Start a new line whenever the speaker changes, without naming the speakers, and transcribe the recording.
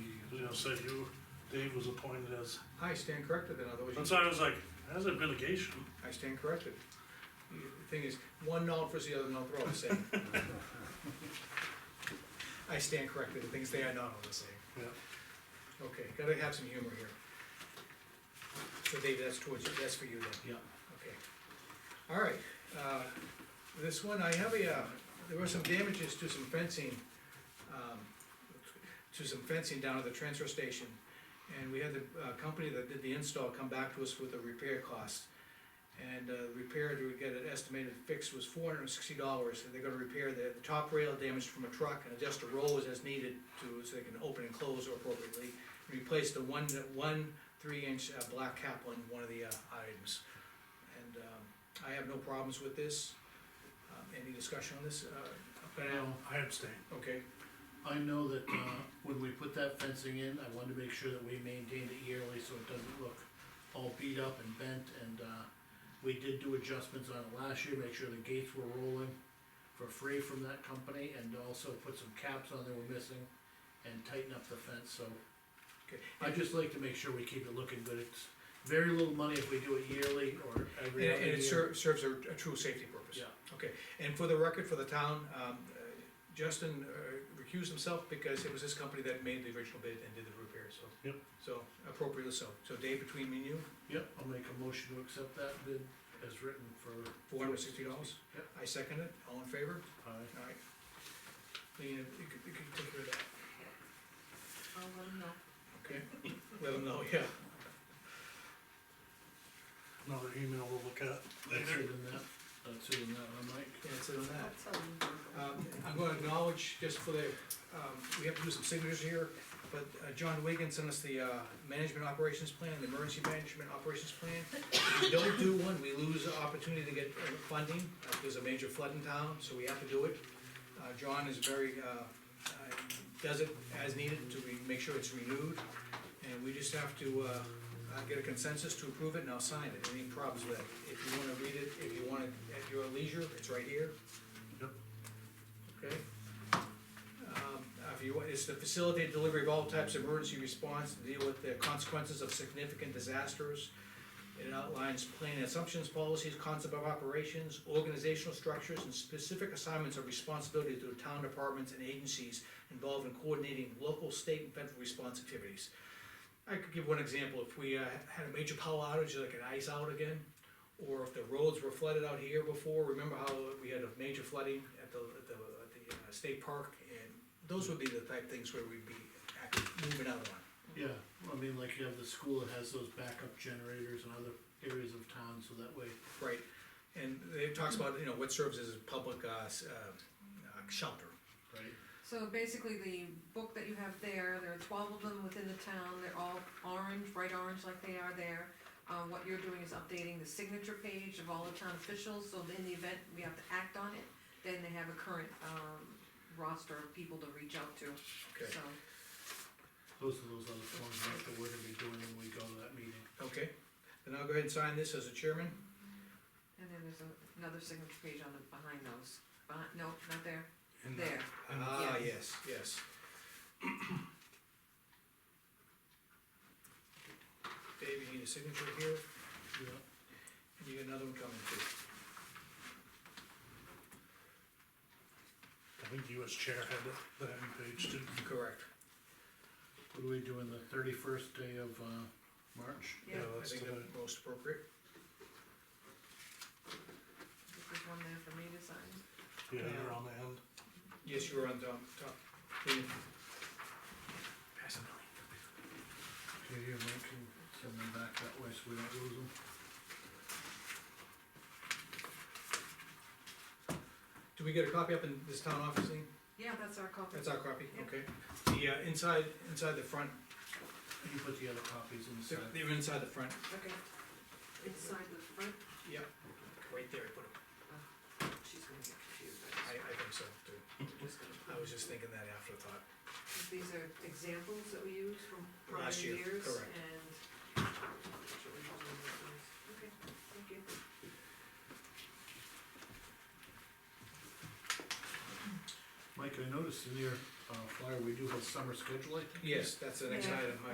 gonna say you, Dave was appointed as,
I stand corrected then, otherwise. you-
and so I was like, that's a mitigation.
I stand corrected. The Thing is, one not for the other not, they're all the same. I stand corrected, the things they are not all the same.
Yeah.
Okay, gotta have some humor here. So Dave, that's towards, you. that's for you then,
Yeah.
okay. All right, uh, this one, I have a, uh, there were some damages to some fencing, um, to some fencing down at the transfer station. And we had the, uh, company that did the install come back to us with a repair cost. And, uh, repair, we get an estimated fix was four hundred and sixty dollars, and they're gonna repair the, the top rail damaged from a truck and adjust the rollers as needed to, so they can open and close appropriately. Replace the one, one three-inch, uh, black cap on one of the, uh, items. And, um, I have no problems with this. Um, any discussion on this, uh, up and
Now,
down?
I abstain.
Okay,
I know that, uh, when we put that fencing in, I wanted to make sure that we maintained it yearly, so it doesn't look all beat up and bent, and, uh, we did do adjustments on it last year, make sure the gates were rolling for free from that company, and also put some caps on that were missing, and tighten up the fence, so.
okay.
I just like to make sure we keep it looking good, it's very little money if we do it yearly or
And
every other
and
year.
it ser- serves a, a true safety purpose.
Yeah.
Okay, and for the record, for the town, um, uh, Justin uh, recused himself because it was his company that made the original bid and did the repair, so.
Yep.
So appropriately so. So Dave, between me and you,
Yep, I'll make a motion to accept that bid as written for.
four hundred and sixty dollars?
Yep.
I second it. All in favor?
Aye.
All right. Lean, you could, you could take care of that.
I'll let him know.
Okay. Let them know, yeah.
Another email we'll look at
That's
later.
it in that, that's it in that, one, Mike.
Yeah, it's on that.
I'll tell him.
Um, I'm gonna acknowledge, just for the, um, we have to do some signatures here, but uh, John Wigan sent us the, uh, management operations plan, the emergency management operations plan. If we don't do one, we lose the opportunity to get uh, funding, Uh, there's a major flood in town, so we have to do it. Uh, John is very, uh, uh, does it as needed to re- make sure it's renewed, and we just have to, uh, uh, get a consensus to approve it, and I'll sign it, any problems with it. If you wanna read it, if you want it at your leisure, it's right here. Okay. Um, If you, want- it's to facilitate delivery of all types of emergency response, to deal with the consequences of significant disasters. It outlines plan assumptions, policies, concept of operations, organizational structures, and specific assignments of responsibility to town departments and agencies involved in coordinating local, state, and federal response activities. I could give one example, if we uh, had a major power outage, like an ice out again, or if the roads were flooded out here before, remember how we had a major flooding at the, at the, at the uh, state park? And those would be the type things where we'd be act- moving out on.
Yeah, well, I mean, like you have the school that has those backup generators in other areas of town, so that way,
Right, and it talks about, you know, what serves as a public, uh, s- uh, uh, shelter.
right?
So basically, the book that you have there, there are twelve of them within the town, they're all orange, bright orange like they are there. Uh, what you're doing is updating the signature page of all the town officials, so that in the event we have to act on it, then they have a current, um, roster of people to reach out to,
Okay,
so.
Those are those other forms right, that we're gonna be doing when we go to that meeting.
okay, then I'll go ahead and sign this as a chairman.
And then there's a- another signature page on the, behind those, behind, no, not there,
And
there.
Ah,
Yeah.
yes, yes. Dave, you need a signature here,
Yeah.
and you got another one coming too.
I think you as chair had it, the end page too.
Correct.
What are we doing the thirty-first day of, uh, March?
Yeah,
I
that's
think
today.
that's most appropriate.
there's one there for me to sign.
Yeah, you're on the end.
Yes, you were on top, top. Pass it on.
Okay, here, Mike can send them back that way so we don't lose them.
Do we get a copy up in this town office thing?
Yeah, that's our copy.
That's our copy,
Yeah.
okay. The, uh, inside, inside the front,
You put the other copies
they're,
inside.
they're inside the front,
Okay. Inside the front,
yep. Right there, I put them,
she's gonna get confused.
I, I think so too.
I'm just gonna put-
I was just thinking that afterthought.
These are examples that we use from prior
Last year,
years and.
correct.
Okay, thank you.
Mike, I noticed in your
uh, flyer, we do have summer schedule, I think.
Yes, that's the next
Yeah.
item,